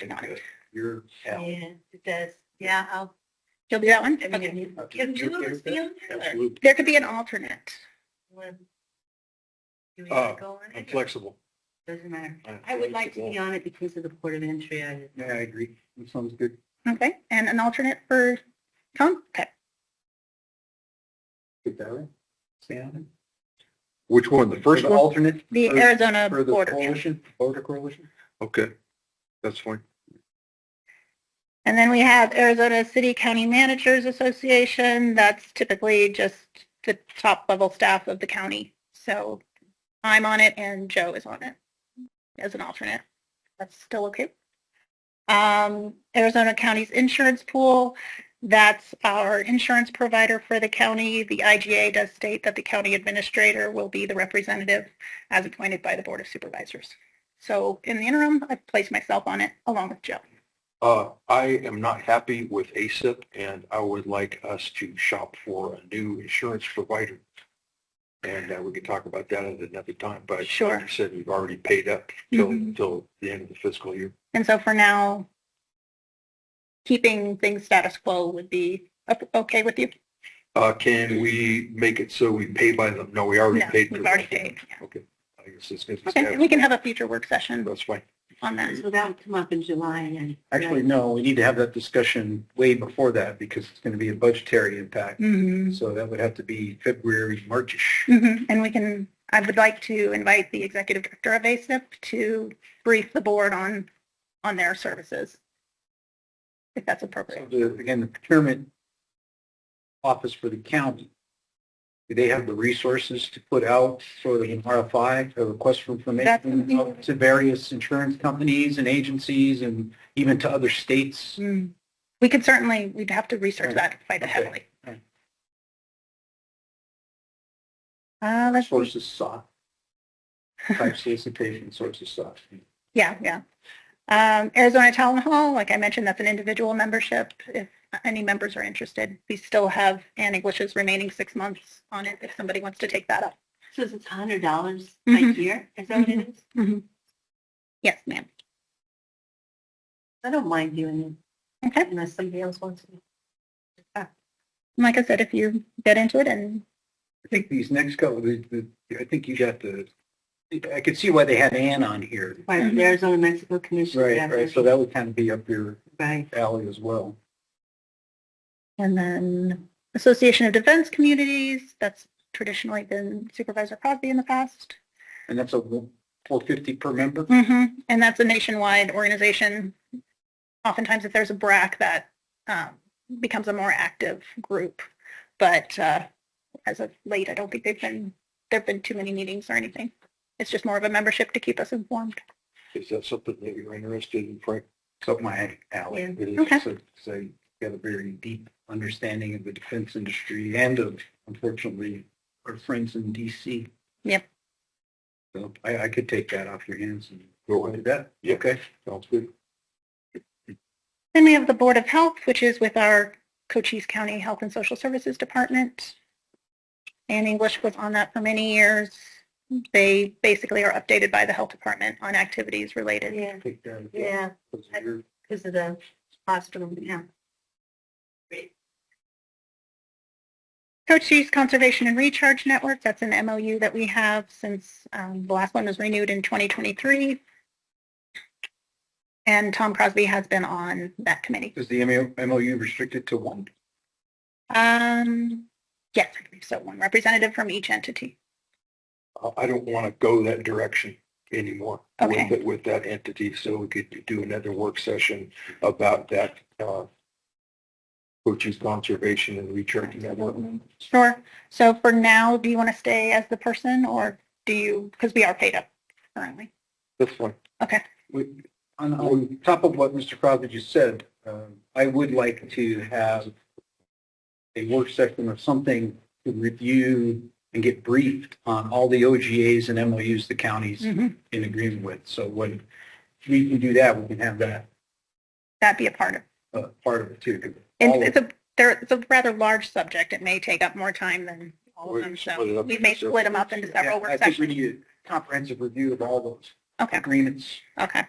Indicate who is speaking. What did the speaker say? Speaker 1: tonight.
Speaker 2: You're.
Speaker 1: Yeah.
Speaker 3: it does. Yeah, I'll, she'll do that one. I mean,
Speaker 1: Okay.
Speaker 3: can
Speaker 2: You're
Speaker 3: two of
Speaker 2: okay
Speaker 3: us
Speaker 2: with that?
Speaker 3: be on there?
Speaker 2: Absolutely.
Speaker 1: There could be an alternate.
Speaker 3: When- Do we
Speaker 2: Uh,
Speaker 3: want to go on
Speaker 2: I'm
Speaker 3: it?
Speaker 2: flexible.
Speaker 3: Doesn't matter.
Speaker 2: I'm
Speaker 3: I would like to be
Speaker 2: flexible.
Speaker 3: on it because of the port of entry. I-
Speaker 2: Yeah, I agree. That sounds good.
Speaker 1: Okay. And an alternate for Tom? Okay.
Speaker 2: Get that right. Stay on it.
Speaker 4: Which one, the first
Speaker 2: For
Speaker 4: one?
Speaker 2: Alternate
Speaker 1: The
Speaker 2: For-
Speaker 1: Arizona
Speaker 2: for the
Speaker 1: border. yeah.
Speaker 2: coalition, voter coalition?
Speaker 4: Okay, that's fine.
Speaker 1: And then we have Arizona City County Managers Association. That's typically just the top level staff of the county. So I'm on it and Joe is on it as an alternate. That's still okay. Um, Arizona County's Insurance Pool, that's our insurance provider for the county. The IGA does state that the county administrator will be the representative as appointed by the Board of Supervisors. So in the interim, I've placed myself on it along with Joe.
Speaker 4: Uh, I am not happy with ASIP and I would like us to shop for a new insurance provider. And uh, we could talk about that at another time, but like
Speaker 1: Sure.
Speaker 4: you said, we've already paid up till,
Speaker 3: Mm-hmm.
Speaker 1: Mhm.
Speaker 4: till the end of the fiscal year.
Speaker 1: And so for now, keeping things status quo would be o- okay with you?
Speaker 4: Uh, can we make it so we pay by them? No, we
Speaker 2: Oh,
Speaker 4: already
Speaker 1: No,
Speaker 4: paid.
Speaker 1: we've
Speaker 4: for-
Speaker 1: already paid, yeah.
Speaker 4: Okay, I guess it's good.
Speaker 1: Okay, and we can have a future work session
Speaker 4: That's fine.
Speaker 1: on that.
Speaker 3: So that would come up in July and.
Speaker 2: Actually, no, we need to have that discussion way before that because it's going to be a budgetary impact.
Speaker 1: Mm-hmm.
Speaker 2: So that would have to be February, Marchish.
Speaker 1: Mm-hmm. And we can, I would like to invite the executive director of ASIP to brief the board on, on their services. If that's
Speaker 2: So
Speaker 1: appropriate.
Speaker 2: the, again, the procurement office for the county, do they have the resources to put out sort of an RFI, a request for information
Speaker 1: That's-
Speaker 2: out to various insurance companies and agencies and even to other states?
Speaker 1: Mm. We could certainly, we'd have to research that quite
Speaker 2: Okay.
Speaker 1: heavily.
Speaker 2: Right.
Speaker 1: Uh, let's,
Speaker 2: Sources sought, type solicitation, sources sought.
Speaker 1: Yeah, yeah. Um, Arizona Town Hall, like I mentioned, that's an individual membership. If any members are interested, we still have Ann English's remaining six months on it if somebody wants to take that up.
Speaker 3: So it's a hundred dollars a
Speaker 2: Mm-hmm.
Speaker 1: Mhm.
Speaker 3: year? Is that what it is?
Speaker 1: Yes, ma'am.
Speaker 3: I don't mind doing
Speaker 1: Okay.
Speaker 3: it unless somebody else wants to.
Speaker 1: Like I said, if you get into it and
Speaker 2: I think these next couple, the, the, I think you got the, I could see why they had Ann on here.
Speaker 3: Right, the Arizona Mexico Commission.
Speaker 2: Mm-hmm. Right,
Speaker 3: yeah,
Speaker 2: right, so that would kind of be up your
Speaker 3: Right.
Speaker 2: alley as well.
Speaker 1: And then Association of Defense Communities, that's traditionally been Supervisor Crosby in the past.
Speaker 2: And that's a four fifty per member?
Speaker 1: Mm-hmm. And that's a nationwide organization. Oftentimes, if there's a BRAC, that um, becomes a more active group. But uh, as of late, I don't think they've been there've been too many meetings or anything. It's just more of a membership to keep us informed.
Speaker 4: Is that something that you're interested in, Frank?
Speaker 2: It's up my alley.
Speaker 4: It is,
Speaker 1: Okay.
Speaker 2: So, so you got a very deep understanding of the defense industry and of, unfortunately, our friends in DC.
Speaker 1: Yep.
Speaker 2: So I, I could take that off your hands and
Speaker 4: Go
Speaker 2: go
Speaker 4: ahead.
Speaker 2: with that.
Speaker 4: Yeah. Okay. Sounds good.
Speaker 1: Then we have the Board of Health, which is with our Cochise County Health and Social Services Department. And English was on that for many years. They basically are updated by the Health Department on activities related
Speaker 3: Yeah,
Speaker 2: Take that.
Speaker 3: yeah,
Speaker 2: Because you're-
Speaker 3: because of the hospital, yeah.
Speaker 1: Cochise Conservation and Recharge Network, that's an MOU that we have since um, the last one was renewed in 2023. And Tom Crosby has been on that committee.
Speaker 2: Is the MO MOU restricted to one?
Speaker 1: Um, yes, I believe so one representative from each entity.
Speaker 4: I- I don't want to go that direction anymore
Speaker 1: Okay.
Speaker 4: with, it- with that entity, so we could do another work session about that, uh, Cochise Conservation and Recharge Network.
Speaker 1: Sure. So for now, do you want to stay as the person or do you, because we are paid up currently?
Speaker 4: This one,
Speaker 2: We- On, on top of what Mr. Crosby just said, um, I would like to have a work session or something to review and get briefed on all the OGAs and MOUs the county's
Speaker 1: Mhm.
Speaker 2: in agreement with. So when we can do that, we can have that
Speaker 1: That'd be a part of,
Speaker 2: uh, part of it too. All
Speaker 1: it's,
Speaker 2: of-
Speaker 1: it's a, there, it's a rather large subject. It may take up more time than all
Speaker 4: We
Speaker 1: of them.
Speaker 4: split it
Speaker 1: So
Speaker 4: up
Speaker 1: we
Speaker 4: into
Speaker 1: may
Speaker 4: several-
Speaker 1: split them up into
Speaker 2: Yeah,
Speaker 1: several work
Speaker 2: I think we
Speaker 1: sessions.
Speaker 2: need a comprehensive review of all those
Speaker 1: Okay,
Speaker 2: agreements.
Speaker 1: okay.